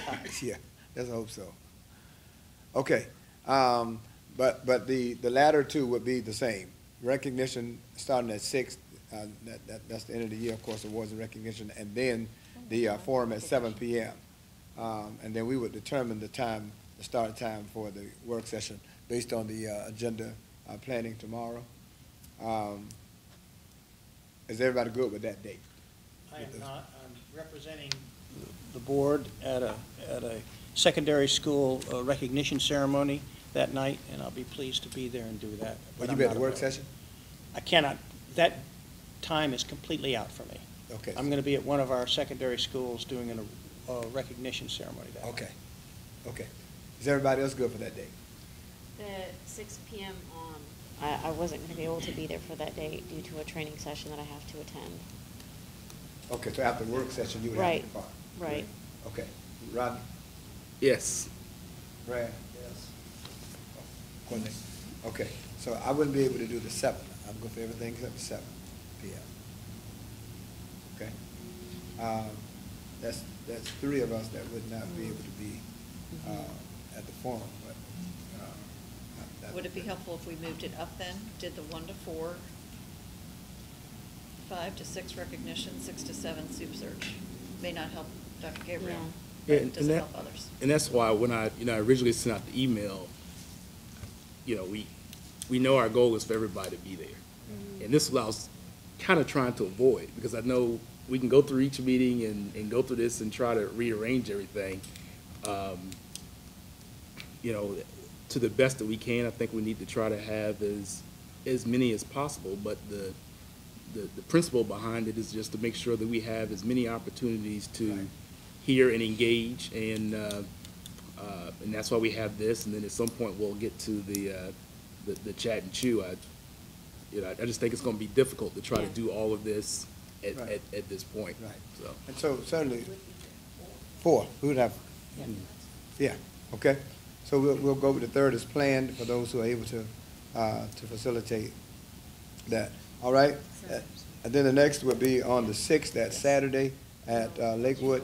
Yeah, let's hope so. Okay, um, but, but the, the latter two would be the same. Recognition starting at six, uh, that, that, that's the end of the year, of course, awards and recognition, and then the uh, forum at seven P M. Um, and then we would determine the time, the start time for the work session based on the, uh, agenda, uh, planning tomorrow. Um, is everybody good with that date? I am not, I'm representing the board at a, at a secondary school uh, recognition ceremony that night, and I'll be pleased to be there and do that. but Will you I'm be at not the work available. session? I cannot, that time is completely out for me. Okay. I'm gonna be at one of our secondary schools doing a, a recognition ceremony that night. Okay, okay. Is everybody else good for that date? The six PM, um, I, I wasn't gonna be able to be there for that day due to a training session that I have to attend. Okay, so after work session, you would have to Right, depart? right. Okay. Rodney? Yes. Brad? Yes. Courtney? Okay, so I wouldn't be able to do the seventh. I'm good for everything except the seventh PM. Okay? Um, That's, that's three of us that would not be able to be uh, at the forum, but. uh, I- I- Would it be helpful if we moved it up then? Did the one to four, five to six recognition, six to seven soup search? May not help Dr. Gabriel, but Yeah, and it doesn't that- help others. And that's why when I, you know, I originally sent out the email, you know, we, we know our goal is for everybody to be Mm-hmm. there. And this allows, kind of trying to avoid, because I know we can go through each meeting and, and go through this and try to rearrange everything. Um, You know, to the best that we can, I think we need to try to have as, as many as possible, but the, the, the principle behind it is just to make sure that we have as many opportunities to hear and engage, and, uh, uh, and that's why we have this, and then at some point, we'll get to the, uh, the, the chat and chew. I, you know, I just think it's gonna be difficult to try to Yeah. do all of this at, Right. at, at this point, Right. so. And so certainly, four, we would have, hmm, yeah, okay? So we'll, we'll go with the third as planned for those who are able to, uh, to facilitate that, all right? Uh, And then the next will be on the sixth, that Saturday at uh, Lakewood,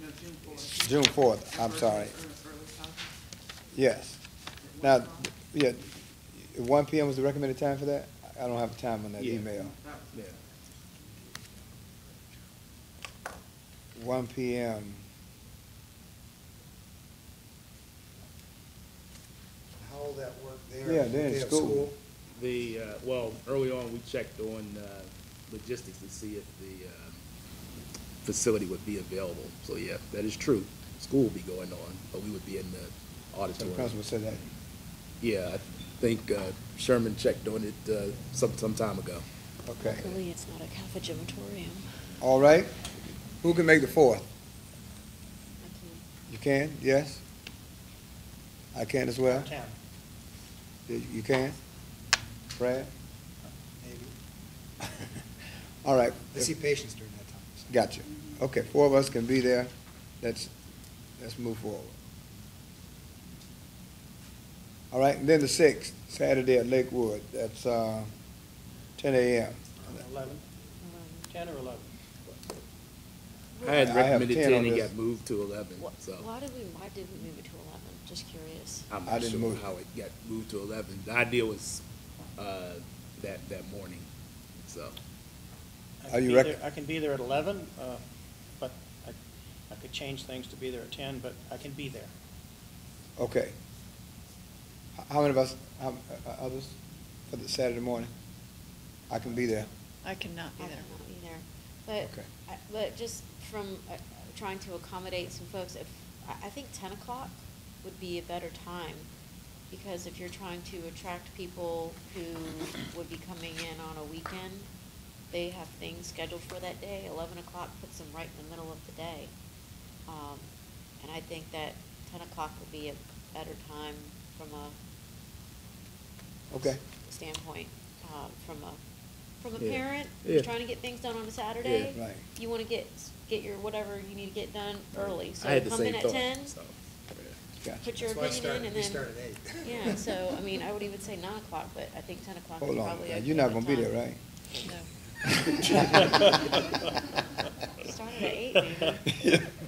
No, June fourth. June fourth, I'm sorry, yes. Now, th- yeah, one PM was the recommended time for that? I don't have time on that Yeah. email. Yeah. One PM. How will that work there? Yeah, they're in They have school. The, uh, well, early on, we checked on, uh, logistics to see if the, um, facility would be available, so yeah, that is true. School will be going on, but we would be in the So the auditorium. principal said that. Yeah, I think uh, Sherman checked on it uh, some, some time ago. Okay, Luckily, it's not a cafe gymatorium. all right. Who can make the fourth? I can- You can, yes? I can as well? Town. You you can? Brad? All right. They see patients during that time. so. Gotcha. Okay, four of us can be there. Let's, let's move forward. All right, and then the sixth, Saturday at Lakewood, that's, uh, ten AM. Eleven, um, ten or eleven? I had I have recommended 10 on ten and this. got moved to eleven, Wh- so Why did we, why did we move it to eleven? Just curious. I'm I not didn't sure move. how it got moved to eleven. The idea was uh, that, that morning, so. I Are can you be rec- there- I can be there at eleven, uh, but I, I could change things to be there at ten, but I can be there. Okay. H- How many of us, how, uh, others for the Saturday morning? I can be there. I cannot be I there. cannot be there. But, Okay. I- but just from uh, trying to accommodate some folks, if, I, I think ten o'clock would be a better time. Because if you're trying to attract people who would be coming in on a weekend, they have things scheduled for that day. Eleven o'clock puts them right in the middle of the day. Um, and I think that ten o'clock would be a better time from a Okay. standpoint, uh, from a, from a Yeah. parent Yeah. who's trying to get things done on a Saturday. Yeah. Right. You wanna get, get your whatever you need to get done early, I so had the come in same at thought, ten, so, yeah. Gotcha. put your That's why I opinion started- we in, and then. started at eight. Yeah, so, I mean, I would even say nine o'clock, but I think ten o'clock is Hold probably. on, now, okay you're not for gonna be there, time. right? No. Started at eight, maybe.